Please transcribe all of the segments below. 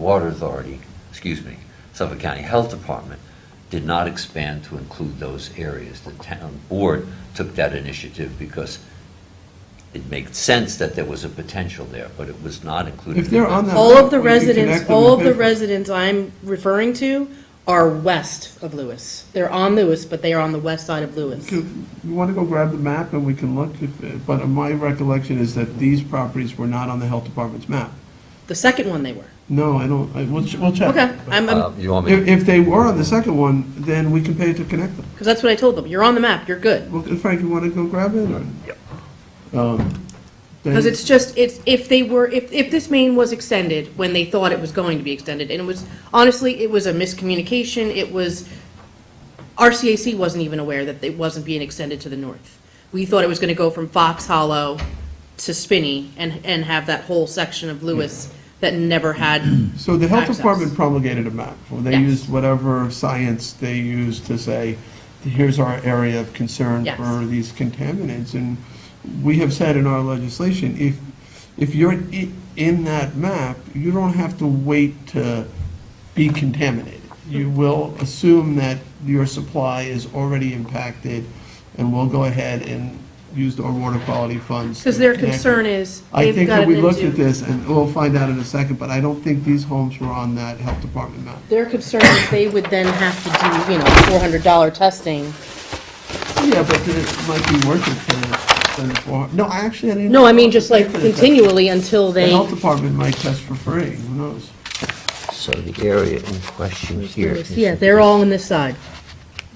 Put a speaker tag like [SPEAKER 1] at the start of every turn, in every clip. [SPEAKER 1] Water Authority, excuse me, Suffolk County Health Department did not expand to include those areas. The town board took that initiative because it made sense that there was a potential there, but it was not included.
[SPEAKER 2] If they're
[SPEAKER 1] in
[SPEAKER 2] on that.
[SPEAKER 3] All of the
[SPEAKER 2] map, we can connect
[SPEAKER 3] residents,
[SPEAKER 2] them
[SPEAKER 3] all
[SPEAKER 2] and
[SPEAKER 3] of the
[SPEAKER 2] pay for it.
[SPEAKER 3] residents I'm referring to are west of Lewis. They're on Lewis, but they are on the west side of Lewis.
[SPEAKER 2] You you want to go grab the map and we can look, if- but my recollection is that these properties were not on the health department's map.
[SPEAKER 3] The second one they were.
[SPEAKER 2] No, I don't, I, we'll, ch- we'll check.
[SPEAKER 3] Okay, I'm,
[SPEAKER 1] Uh,
[SPEAKER 3] I'm,
[SPEAKER 1] You want me
[SPEAKER 2] If,
[SPEAKER 1] to
[SPEAKER 2] if they were on the second one, then we can pay to connect them.
[SPEAKER 3] because that's what I told them. You're on the map, you're good.
[SPEAKER 2] Well, Frank, you want to go grab it or? Um,
[SPEAKER 3] Because it's just, it's, if they were, if, if this main was extended when they thought it was going to be extended, and it was, honestly, it was a miscommunication, it was, RCAC wasn't even aware that it wasn't being extended to the north. We thought it was gonna go from Fox Hollow to Spinney and, and have that whole section of Lewis that never had,
[SPEAKER 2] So the health
[SPEAKER 3] Access.
[SPEAKER 2] department promulgated a map, or they
[SPEAKER 3] Yes.
[SPEAKER 2] used whatever science they used to say, here's our area of concern
[SPEAKER 3] Yes.
[SPEAKER 2] for these contaminants, and we have said in our legislation, if, if you're i- in that map, you don't have to wait to be contaminated. You will assume that your supply is already impacted, and we'll go ahead and use our water quality funds. to
[SPEAKER 3] because their
[SPEAKER 2] connect it.
[SPEAKER 3] concern is,
[SPEAKER 2] I
[SPEAKER 3] they've
[SPEAKER 2] think that
[SPEAKER 3] gotten
[SPEAKER 2] we looked at
[SPEAKER 3] into.
[SPEAKER 2] this, and we'll find out in a second, but I don't think these homes were on that health department map.
[SPEAKER 3] Their concern is they would then have to do, you know, four hundred dollar testing.
[SPEAKER 2] Yeah, but it might be worth it to send for, no, I actually, I didn't.
[SPEAKER 3] No, I mean, just like
[SPEAKER 2] Pay for the test.
[SPEAKER 3] continually until
[SPEAKER 2] The
[SPEAKER 3] they,
[SPEAKER 2] health department might test for free, who knows?
[SPEAKER 1] So the area in question here is...
[SPEAKER 3] yeah, they're all on this side.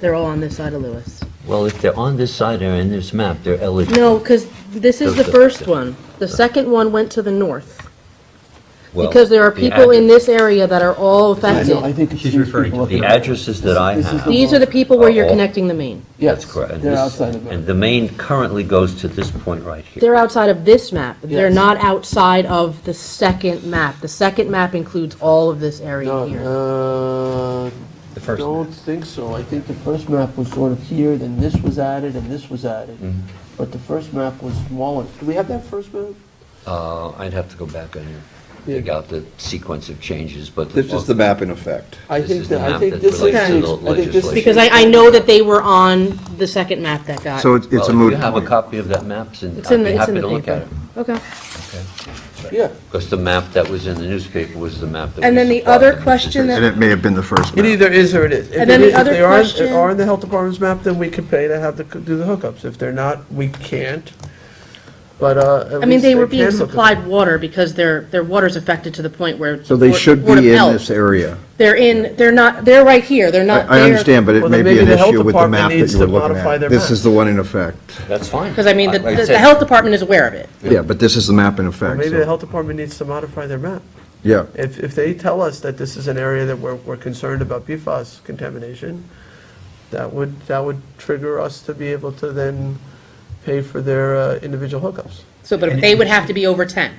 [SPEAKER 3] They're all on this side of Lewis.
[SPEAKER 1] Well, if they're on this side or in this map, they're eligible.
[SPEAKER 3] No, because this is the first one. The second one went to the north,
[SPEAKER 1] Well,
[SPEAKER 3] because there are
[SPEAKER 1] the
[SPEAKER 3] people in
[SPEAKER 1] address-
[SPEAKER 3] this area that are all affected.
[SPEAKER 4] think it's
[SPEAKER 5] She's
[SPEAKER 4] these
[SPEAKER 5] referring
[SPEAKER 4] people
[SPEAKER 5] to
[SPEAKER 4] up
[SPEAKER 1] The
[SPEAKER 4] there.
[SPEAKER 1] addresses that I
[SPEAKER 4] This is
[SPEAKER 1] have...
[SPEAKER 4] the-
[SPEAKER 3] These are the people where
[SPEAKER 1] Are
[SPEAKER 3] you're
[SPEAKER 1] all-
[SPEAKER 3] connecting the main.
[SPEAKER 1] That's correct. And
[SPEAKER 4] They're
[SPEAKER 1] this-
[SPEAKER 4] outside of
[SPEAKER 1] And
[SPEAKER 4] it.
[SPEAKER 1] the main currently goes to this point right here.
[SPEAKER 3] They're outside of this map. They're
[SPEAKER 4] Yes.
[SPEAKER 3] not outside of the second map. The second map includes all of this area here.
[SPEAKER 4] No, uh,
[SPEAKER 5] The first
[SPEAKER 4] don't
[SPEAKER 5] map.
[SPEAKER 4] think so. I think the first map was sort of here, then this was added, and this was added.
[SPEAKER 1] Mm-hmm.
[SPEAKER 4] But the first map was smaller. Do we have that first map?
[SPEAKER 1] Uh, I'd have to go back and dig out the sequence of changes, but.
[SPEAKER 6] This is the map in effect.
[SPEAKER 4] I
[SPEAKER 1] This
[SPEAKER 4] think
[SPEAKER 1] is the
[SPEAKER 4] that, I
[SPEAKER 1] map
[SPEAKER 4] think
[SPEAKER 1] that
[SPEAKER 4] this is, the
[SPEAKER 1] relates
[SPEAKER 3] to
[SPEAKER 4] ex- I
[SPEAKER 1] the
[SPEAKER 4] think this is.
[SPEAKER 1] legislation.
[SPEAKER 3] Because I, I know that they were on the second map that got.
[SPEAKER 7] So it's it's a
[SPEAKER 1] Well, if
[SPEAKER 7] moot
[SPEAKER 1] you have a
[SPEAKER 7] point.
[SPEAKER 1] copy of that map, then
[SPEAKER 3] It's
[SPEAKER 1] I'd
[SPEAKER 3] in the,
[SPEAKER 1] be
[SPEAKER 3] it's
[SPEAKER 1] happy
[SPEAKER 3] in the
[SPEAKER 1] to look at
[SPEAKER 3] paper.
[SPEAKER 1] it.
[SPEAKER 3] Okay.
[SPEAKER 4] Yeah.
[SPEAKER 1] Because the map that was in the newspaper was the map that was.
[SPEAKER 3] And then the
[SPEAKER 1] supplied
[SPEAKER 3] other
[SPEAKER 1] to Mr.
[SPEAKER 3] question that-
[SPEAKER 7] And it may have been the first
[SPEAKER 2] It
[SPEAKER 7] map.
[SPEAKER 2] either is or it is. If
[SPEAKER 3] And then the
[SPEAKER 2] it is- if
[SPEAKER 3] other
[SPEAKER 2] they are-
[SPEAKER 3] question-
[SPEAKER 2] Are in the health department's map, then we could pay to have the, do the hookups, if they're not, we can't, but, uh. at
[SPEAKER 3] I mean,
[SPEAKER 2] least
[SPEAKER 3] they were being
[SPEAKER 2] can hook us up.
[SPEAKER 3] supplied water because their, their water's affected to the point where.
[SPEAKER 7] So they
[SPEAKER 3] Board-
[SPEAKER 7] should
[SPEAKER 3] Board of
[SPEAKER 7] be in
[SPEAKER 3] Health-
[SPEAKER 7] this area.
[SPEAKER 3] They're in, they're not, they're right here, they're
[SPEAKER 7] I
[SPEAKER 3] not there.
[SPEAKER 7] I understand, but it
[SPEAKER 2] Well,
[SPEAKER 7] may
[SPEAKER 2] then
[SPEAKER 7] be
[SPEAKER 2] maybe
[SPEAKER 7] an
[SPEAKER 2] the health
[SPEAKER 7] issue with the
[SPEAKER 2] department
[SPEAKER 7] map that
[SPEAKER 2] needs
[SPEAKER 7] you were
[SPEAKER 2] to
[SPEAKER 7] looking
[SPEAKER 2] modify their
[SPEAKER 7] at. This
[SPEAKER 2] map.
[SPEAKER 7] is the one in effect.
[SPEAKER 1] That's fine.
[SPEAKER 3] Because I mean, the,
[SPEAKER 1] Like I
[SPEAKER 3] the the
[SPEAKER 1] said,
[SPEAKER 3] health department is aware of it.
[SPEAKER 7] Yeah, but this is the map in effect.
[SPEAKER 2] Maybe
[SPEAKER 7] so-
[SPEAKER 2] the health department needs to modify their map.
[SPEAKER 7] Yeah.
[SPEAKER 2] If, if they tell us that this is an area that we're, we're concerned about PFAS contamination, that would, that would trigger us to be able to then pay for their uh, individual hookups.
[SPEAKER 3] So, but they would have to be over ten,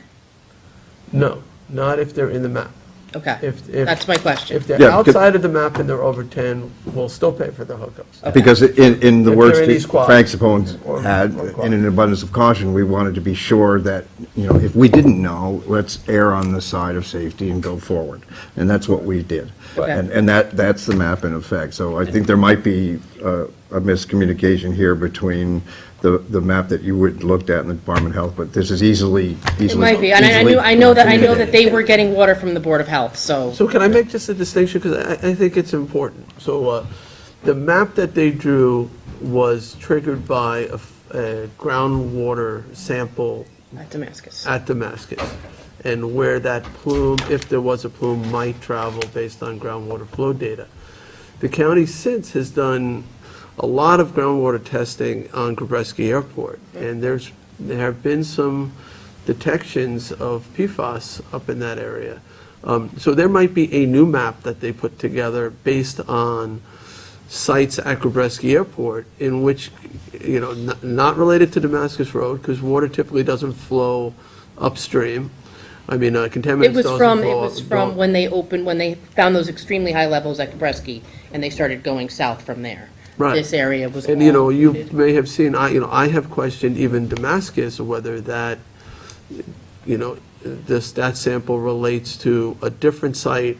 [SPEAKER 2] No, not if they're in the map.
[SPEAKER 3] okay?
[SPEAKER 2] If,
[SPEAKER 3] That's
[SPEAKER 2] if,
[SPEAKER 3] my
[SPEAKER 2] if
[SPEAKER 3] question.
[SPEAKER 2] they're
[SPEAKER 7] Yeah, 'cause-
[SPEAKER 2] outside of the map and they're over 10, we'll still pay for the hookups.
[SPEAKER 7] Because in, in the
[SPEAKER 2] If
[SPEAKER 7] words
[SPEAKER 2] there are any
[SPEAKER 7] that
[SPEAKER 2] squads.
[SPEAKER 7] Frank Sapone's
[SPEAKER 2] Or-
[SPEAKER 7] had,
[SPEAKER 2] or
[SPEAKER 7] in
[SPEAKER 2] squads.
[SPEAKER 7] an abundance of caution, we wanted to be sure that, you know, if we didn't know, let's err on the side of safety and go forward. And that's what we did.
[SPEAKER 1] Right.
[SPEAKER 7] And, and that, that's the map in effect. So I think there might be uh, a miscommunication here between the, the map that you would looked at in the Department of Health, but this is easily, easily.
[SPEAKER 3] It might be, and I I knew,
[SPEAKER 7] easily
[SPEAKER 3] I know that, I know
[SPEAKER 7] communicated.
[SPEAKER 3] that they were getting water from the Board of Health, so.
[SPEAKER 2] So can I make just a distinction, because I, I think it's important. So uh, the map that they drew was triggered by a f- a groundwater sample
[SPEAKER 3] At Damascus.
[SPEAKER 2] at Damascus, and where that plume, if there was a plume, might travel based on groundwater flow data. The county since has done a lot of groundwater testing on Gabreski Airport, and there's, there have been some detections of PFAS up in that area. Um, So there might be a new map that they put together based on sites at Gabreski Airport in which, you know, n- not related to Damascus Road, because water typically doesn't flow upstream. I mean, uh,
[SPEAKER 3] It
[SPEAKER 2] contaminants
[SPEAKER 3] was
[SPEAKER 2] doesn't
[SPEAKER 3] from, it
[SPEAKER 2] flow-
[SPEAKER 3] was
[SPEAKER 2] don't-
[SPEAKER 3] from when they opened, when they found those extremely high levels at Kabreski, and they started going south from there.
[SPEAKER 2] Right.
[SPEAKER 3] This area was.
[SPEAKER 2] And, you
[SPEAKER 3] all
[SPEAKER 2] know, you
[SPEAKER 3] included.
[SPEAKER 2] may have seen, I, you know, I have questioned even Damascus, whether that, you know, this, that sample relates to a different site